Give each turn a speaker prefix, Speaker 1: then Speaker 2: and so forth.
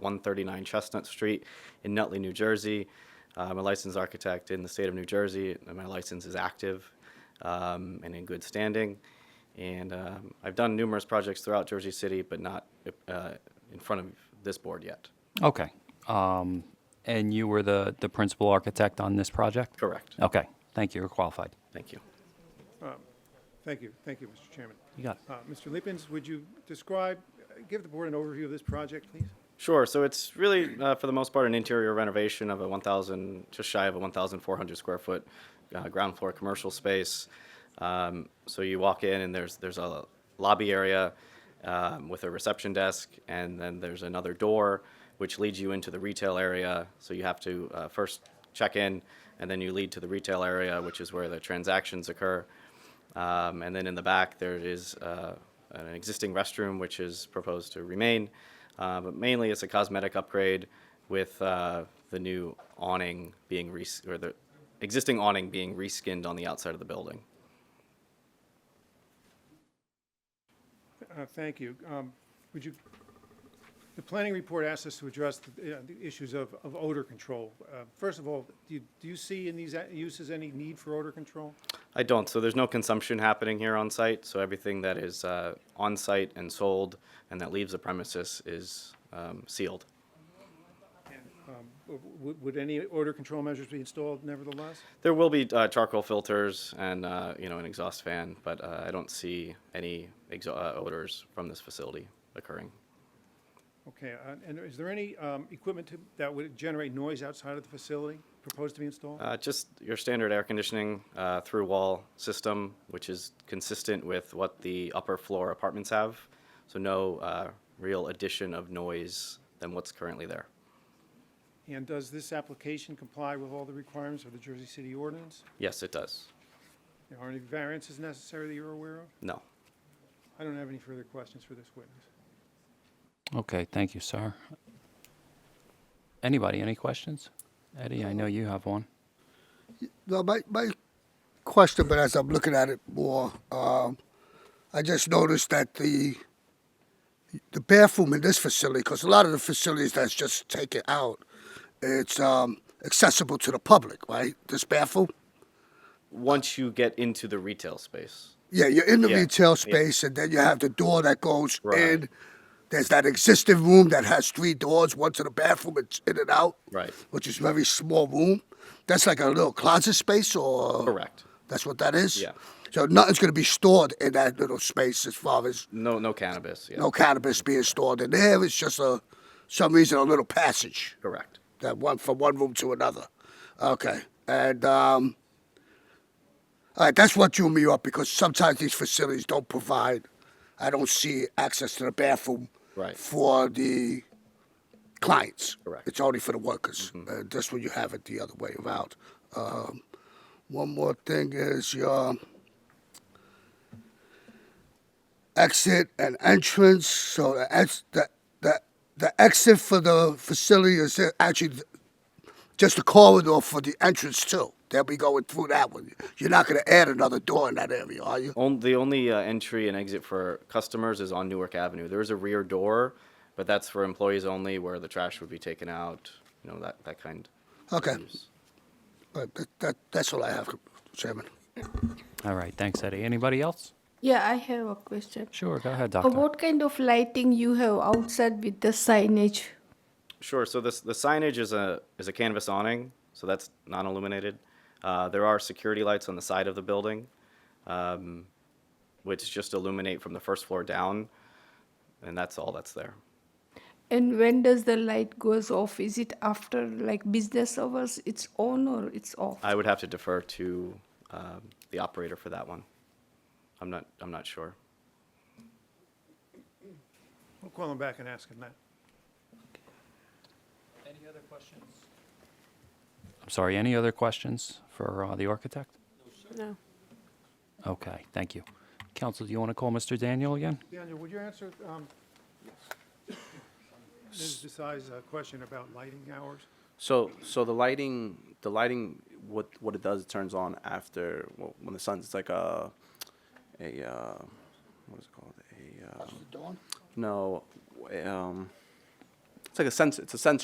Speaker 1: 139 Chestnut Street in Nutley, New Jersey. Uh, I'm a licensed architect in the state of New Jersey, and my license is active um, and in good standing. And um, I've done numerous projects throughout Jersey City, but not uh, in front of this board yet.
Speaker 2: Okay. Um, And you were the, the principal architect on this project?
Speaker 1: Correct.
Speaker 2: Okay, thank you, you're qualified.
Speaker 1: Thank you.
Speaker 3: Thank you, thank you, Mr. Chairman.
Speaker 2: You got it.
Speaker 3: Uh, Mr. Lippens, would you describe, give the board an overview of this project, please?
Speaker 1: Sure. So it's really, uh, for the most part, an interior renovation of a 1,000, just shy of a 1,400 square foot uh, ground floor commercial space. Um, so you walk in and there's there's a lobby area um, with a reception desk, and then there's another door which leads you into the retail area. So you have to uh, first check in, and then you lead to the retail area, which is where the transactions occur. Um, and then in the back, there is uh, an existing restroom which is proposed to remain. Uh, but mainly, it's a cosmetic upgrade with uh, the new awning being res- or the existing awning being reskinned on the outside of the building.
Speaker 3: Uh, Thank you. Um, Would you, the planning report asks us to address the uh, the issues of of odor control. Uh, First of all, do you- do you see in these a- uses any need for odor control?
Speaker 1: I don't. So there's no consumption happening here on site. So everything that is uh, on site and sold and that leaves the premises is um, sealed.
Speaker 3: W- w- Would any odor control measures be installed nevertheless?
Speaker 1: There will be uh, charcoal filters and uh, you know an exhaust fan, but uh, I don't see any exo- uh, odors from this facility occurring.
Speaker 3: Okay, uh, and is there any um, equipment to- that would generate noise outside of the facility proposed to be installed?
Speaker 1: Uh, just your standard air conditioning uh, through wall system, which is consistent with what the upper floor apartments have. So no uh, real addition of noise than what's currently there.
Speaker 3: And does this application comply with all the requirements of the Jersey City ordinance?
Speaker 1: Yes, it does.
Speaker 3: Are any variances necessary that you're aware of?
Speaker 1: No.
Speaker 3: I don't have any further questions for this witness.
Speaker 2: Okay, thank you, sir. Anybody, any questions? Eddie, I know you have one.
Speaker 4: Well, my, my question, but as I'm looking at it more, um, I just noticed that the the bathroom in this facility, because a lot of the facilities that's just taken out, it's um, accessible to the public, right? This bathroom.
Speaker 1: Once you get into the retail space,
Speaker 4: Yeah, you're in the
Speaker 1: Yeah, yeah.
Speaker 4: retail space, and then you have the door that goes
Speaker 1: Right.
Speaker 4: in. There's that existing room that has three doors, one to the bathroom, it's in and out,
Speaker 1: Right.
Speaker 4: Which is very small room. That's like a little closet space, or
Speaker 1: correct.
Speaker 4: That's what that is?
Speaker 1: Yeah.
Speaker 4: So nothing's going to be stored in that little space as far as
Speaker 1: No, no cannabis. Yeah.
Speaker 4: no cannabis being stored in there. It's just a, some reason, a little passage
Speaker 1: Correct.
Speaker 4: that one from one room to another. Okay. And, um, all right, that's what drew me up because sometimes these facilities don't provide, I don't see access to the bathroom
Speaker 1: Right.
Speaker 4: for the clients.
Speaker 1: Correct.
Speaker 4: It's only for the workers. Uh, that's when you have it the other way around. Um, one more thing is your exit and entrance. So the ex- the the, the exit for the facility is actually th- just a corridor for the entrance too. They'll be going through that one. You're not going to add another door in that area, are you?
Speaker 1: On, the only uh, entry and exit for customers is on Newark Avenue. There is a rear door, but that's for employees only, where the trash would be taken out. You know that that kind. of
Speaker 4: Okay.
Speaker 1: use.
Speaker 4: But that, that, that's all I have, Chairman.
Speaker 2: All right, thanks, Eddie. Anybody else?
Speaker 5: Yeah, I have a question.
Speaker 2: Sure, go ahead,
Speaker 5: Uh,
Speaker 2: doctor.
Speaker 5: what kind of lighting you have outside with the signage?
Speaker 1: Sure. So this the signage is a is a canvas awning, so that's non-illuminated. Uh, there are security lights on the side of the building, um, which just illuminate from the first floor down, and that's all that's there.
Speaker 5: And when does the light goes off? Is it after like business hours? It's on or it's off?
Speaker 1: I would have to defer to um, the operator for that one. I'm not I'm not sure.
Speaker 3: We'll call him back and ask him that.
Speaker 2: Any other questions? I'm sorry, any other questions for uh, the architect?
Speaker 6: No.
Speaker 2: Okay, thank you. Counsel, do you want to call Mr. Daniel again?
Speaker 3: Daniel, would you answer um, Ms. Desai's uh, question about lighting hours?
Speaker 7: So, so the lighting, the lighting, what what it does, it turns on after well, when the sun's. It's like a, a, uh, what is it called? A uh,
Speaker 4: Dawn?
Speaker 7: no, um, it's like a sense. It's a sense